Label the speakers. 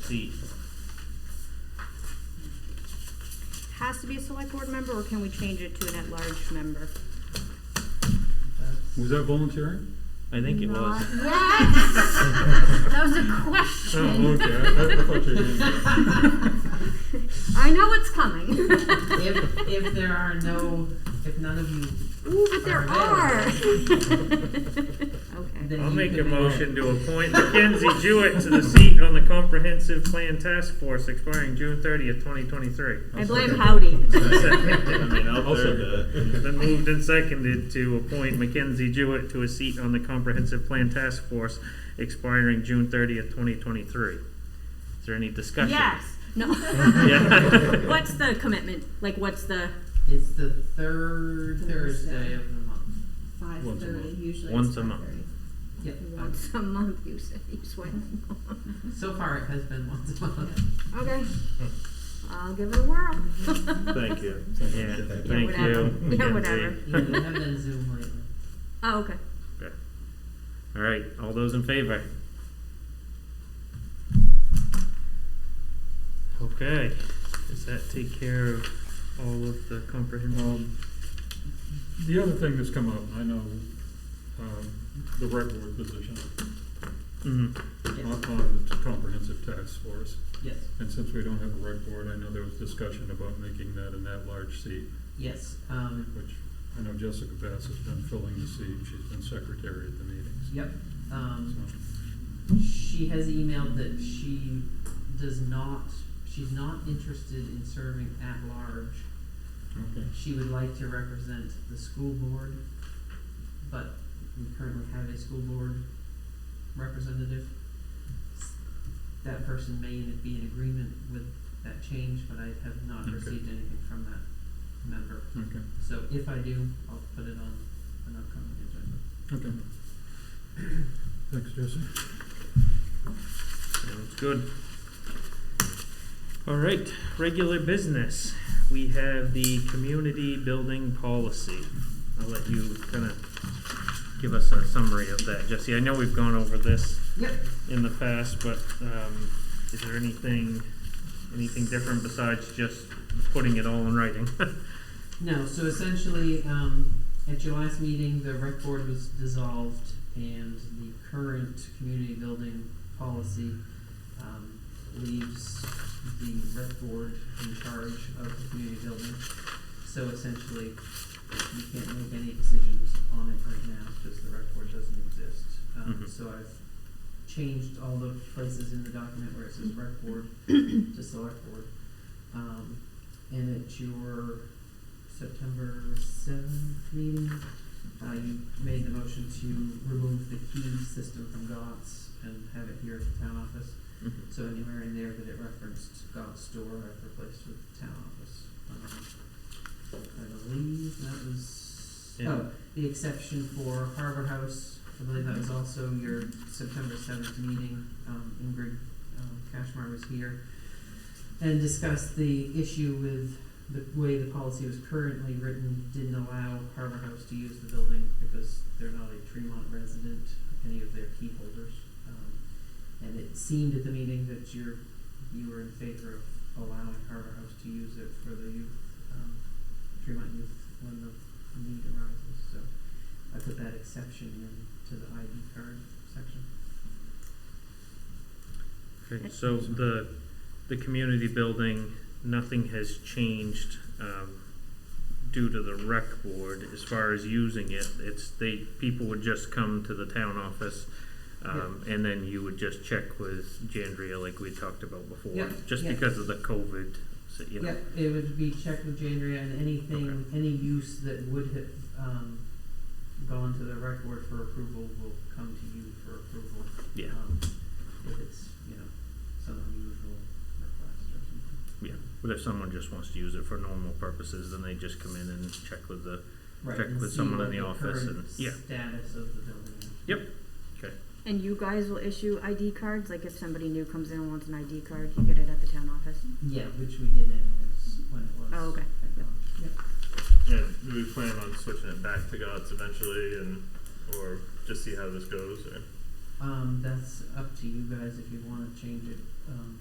Speaker 1: seat.
Speaker 2: Has to be a select board member, or can we change it to an at-large member?
Speaker 3: Was that volunteering?
Speaker 1: I think it was.
Speaker 2: Not- What? That was a
Speaker 3: Oh,
Speaker 2: question.
Speaker 3: okay. I, I thought you were.
Speaker 2: I know it's coming.
Speaker 4: If, if there are no, if none of you,
Speaker 2: Ooh, but there are. Okay.
Speaker 4: then
Speaker 5: I'll
Speaker 4: you
Speaker 5: make a
Speaker 4: can-
Speaker 5: motion to appoint Mackenzie Jewett to the seat on the Comprehensive Plan Task Force expiring June thirtieth, twenty twenty-three.
Speaker 2: I blame Howdy.
Speaker 1: I mean, I'll
Speaker 3: I'll
Speaker 1: third
Speaker 3: second
Speaker 1: that.
Speaker 5: Then moved and seconded to appoint Mackenzie Jewett to a seat on the Comprehensive Plan Task Force expiring June thirtieth, twenty twenty-three. Is there any discussion?
Speaker 2: Yes. No.
Speaker 5: Yeah.
Speaker 2: What's the commitment? Like, what's the?
Speaker 4: It's the third Thursday
Speaker 6: Thursday.
Speaker 4: of the month.
Speaker 6: Five
Speaker 3: Once a
Speaker 6: thirty,
Speaker 3: month.
Speaker 6: usually.
Speaker 5: Once
Speaker 6: it's
Speaker 5: a month.
Speaker 6: 5:30.
Speaker 4: Yep.
Speaker 2: Once a month, you say, you swear.
Speaker 4: So far, it has been once a month.
Speaker 2: Okay. I'll give it a whirl.
Speaker 3: Thank you.
Speaker 5: Yeah,
Speaker 2: Yeah,
Speaker 5: thank
Speaker 2: whatever.
Speaker 5: you.
Speaker 2: Yeah,
Speaker 5: Mackenzie.
Speaker 2: whatever.
Speaker 4: Yeah, they have been Zoom lately.
Speaker 2: Oh, okay.
Speaker 5: All right, all those in favor? Okay, does that take care of all of the comprehensive?
Speaker 3: Um, The other thing that's come up, I know, um, the rec board position
Speaker 5: Mhm.
Speaker 3: on,
Speaker 4: Yes,
Speaker 3: on the comprehensive task force.
Speaker 4: yes,
Speaker 3: And since we don't have a rec board, I know there was discussion about making that an at-large seat,
Speaker 4: yes. Um,
Speaker 3: which I know Jessica Bass has been filling the seat. She's been secretary at the meetings.
Speaker 4: yep. Um,
Speaker 3: So-
Speaker 4: She has emailed that she does not, she's not interested in serving at large.
Speaker 3: Okay.
Speaker 4: She would like to represent the school board, but we currently have a school board representative. That person may be in agreement with that change, but I have not
Speaker 3: Okay.
Speaker 4: received anything from that member.
Speaker 3: Okay,
Speaker 4: So if I do, I'll put it on an upcoming agenda.
Speaker 3: okay. Thanks, Jesse.
Speaker 5: Sounds good. All right, regular business. We have the community building policy. I'll let you kind of give us a summary of that, Jesse. I know we've gone over this
Speaker 4: Yep,
Speaker 5: in the past, but um, is there anything, anything different besides just putting it all in writing?
Speaker 4: No, so essentially, um, at your last meeting, the rec board was dissolved and the current community building policy, um, leaves the rec board in charge of the community building. So essentially, you can't make any decisions on it right now because the rec board doesn't exist. Um,
Speaker 5: Mhm.
Speaker 4: so I've changed all the places in the document where it says rec board to select board. Um, and at your September seventh meeting, uh, you made the motion to remove the key system from GOTS and have it here at the town office. So anywhere in there that it referenced GOTS store, I've replaced with town office. Um, I believe that was,
Speaker 5: Yeah.
Speaker 4: oh, the exception for Harbor House, I believe that was also your September seventh meeting, um, Ingrid, um, Cashmar was here. And discussed the issue with the way the policy was currently written didn't allow Harbor House to use the building because they're not a Tremont resident, any of their key holders. Um, and it seemed at the meeting that you're, you were in favor of allowing Harbor House to use it for the youth, um, Tremont youth when the need arises, so I put that exception in to the ID card section.
Speaker 5: Okay, so the, the community building, nothing has changed, um, due to the rec board as far as using it. It's, they, people would just come to the town office, um, and then you would just check with Jandria like we talked about before.
Speaker 4: Yeah,
Speaker 5: Just
Speaker 4: yeah.
Speaker 5: because of the COVID, so, you know.
Speaker 4: Yep, it would be checked with Jandria and anything,
Speaker 5: Okay.
Speaker 4: any use that would have, um, gone to the rec board for approval will come to you for approval.
Speaker 5: Yeah.
Speaker 4: Um, if it's, you know, some unusual request or something.
Speaker 5: Yeah, but if someone just wants to use it for normal purposes, then they just come in and check with the,
Speaker 4: Right,
Speaker 5: check
Speaker 4: and
Speaker 5: with
Speaker 4: see
Speaker 5: someone
Speaker 4: what
Speaker 5: in the office and- yeah.
Speaker 4: current status of the building is.
Speaker 2: And you guys will issue ID cards? Like, if somebody new comes in and wants an ID card, you get it at the town office?
Speaker 4: Yeah, which we did anyways when it was.
Speaker 2: Oh, okay.
Speaker 4: technology. Yep.
Speaker 7: Yeah, do we plan on switching it back to gods eventually, and or just see how this goes, or
Speaker 4: Um, that's up to you guys if you wanna change it, um,